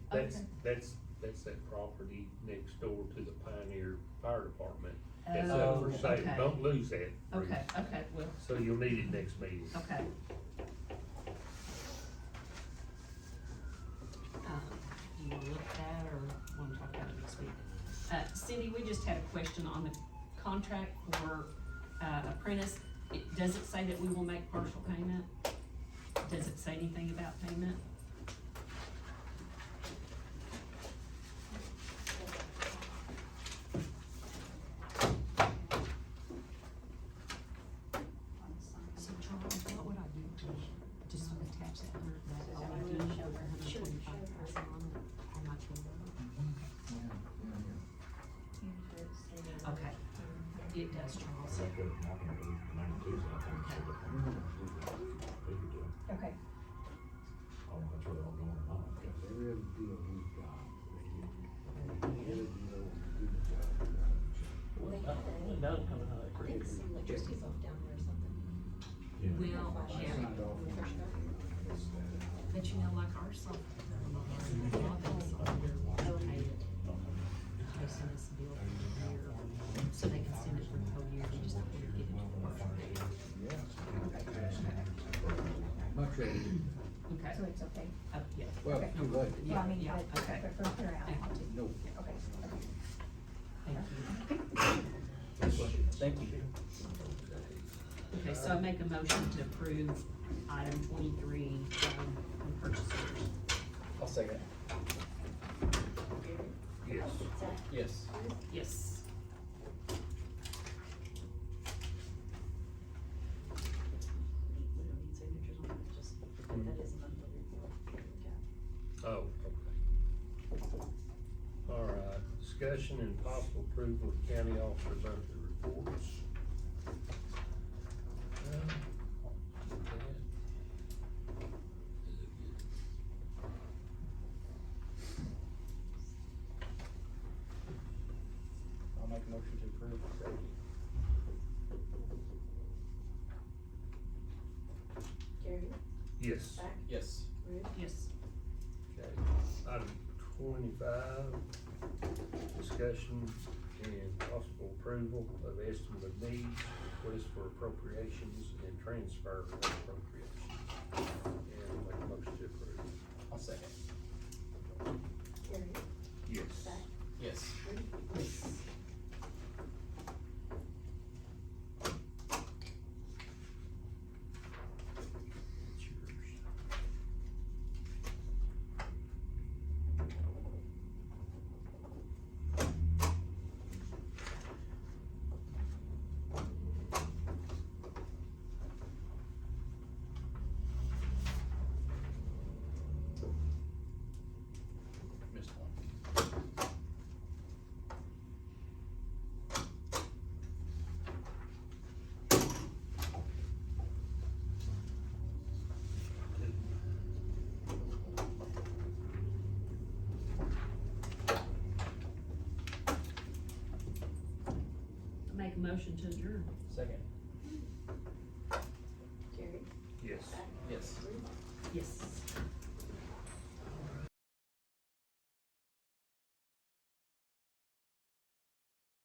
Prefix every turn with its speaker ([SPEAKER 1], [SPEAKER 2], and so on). [SPEAKER 1] That's,
[SPEAKER 2] Okay.
[SPEAKER 1] that's, that's that property next door to the Pioneer Fire Department. That's up
[SPEAKER 2] Oh,
[SPEAKER 1] for sale.
[SPEAKER 2] okay.
[SPEAKER 1] Don't lose that. Bruce.
[SPEAKER 2] Okay, okay, well,
[SPEAKER 1] So you'll need it next meeting.
[SPEAKER 2] okay.
[SPEAKER 3] Um, Do you want to look at that or want to talk about it next week? Uh, Cindy, we just had a question on the contract for, uh, apprentice. It, does it say that we will make partial payment? Does it say anything about payment? So Charles, what would I do to just attach that hundred, that all I do is show her hundred twenty-five percent on it, how much we owe? Okay, it does, Charles.
[SPEAKER 4] That goes not gonna lose the money too, so I think it's a good thing. Good to do.
[SPEAKER 5] Okay.
[SPEAKER 4] I don't know if that's where they're all going or not, I guess.
[SPEAKER 6] Every other deal we got, they get, every other deal, we do the job.
[SPEAKER 7] think some electricity's off down there or something.
[SPEAKER 3] Well,
[SPEAKER 6] I
[SPEAKER 3] yeah,
[SPEAKER 6] signed off on it. It's, uh,
[SPEAKER 3] but you know, like our software, a lot of those are located. Okay, so this bill for the year, so they can send it for the whole year, we just have to get it to the partial payment.
[SPEAKER 6] Much rather,
[SPEAKER 3] Okay,
[SPEAKER 5] So it's okay,
[SPEAKER 3] uh, yeah.
[SPEAKER 6] well, too late,
[SPEAKER 5] well, I
[SPEAKER 3] Yeah,
[SPEAKER 5] mean,
[SPEAKER 3] yeah,
[SPEAKER 5] but,
[SPEAKER 3] okay,
[SPEAKER 5] but from here out,
[SPEAKER 6] no.
[SPEAKER 5] okay, okay.
[SPEAKER 3] thank you.
[SPEAKER 8] Thank you.
[SPEAKER 3] Okay, so I make a motion to approve item twenty-three, um, on purchase orders.
[SPEAKER 8] I'll second.
[SPEAKER 1] Yes.
[SPEAKER 8] Yes.
[SPEAKER 3] Yes.
[SPEAKER 7] We don't need signatures on it, just, that is not the report. Yeah.
[SPEAKER 1] Oh, okay. All right, discussion and possible approval of county officer's monthly reports. Uh,
[SPEAKER 8] I'll make a motion to approve.
[SPEAKER 7] Gary,
[SPEAKER 1] Yes.
[SPEAKER 7] back,
[SPEAKER 8] Yes.
[SPEAKER 7] Ruth,
[SPEAKER 3] Yes.
[SPEAKER 1] Okay, item twenty-five, discussion and possible approval of estimate of needs, request for appropriations and transfer of appropriations. And make a motion to approve.
[SPEAKER 8] I'll second.
[SPEAKER 7] Gary,
[SPEAKER 1] Yes.
[SPEAKER 7] back,
[SPEAKER 8] Yes.
[SPEAKER 7] Ruth,
[SPEAKER 1] It's yours.
[SPEAKER 8] Missed one.
[SPEAKER 3] Make a motion to adjourn.
[SPEAKER 8] Second.
[SPEAKER 7] Gary,
[SPEAKER 1] Yes.
[SPEAKER 7] back,
[SPEAKER 8] Yes.
[SPEAKER 7] Ruth,
[SPEAKER 3] Yes.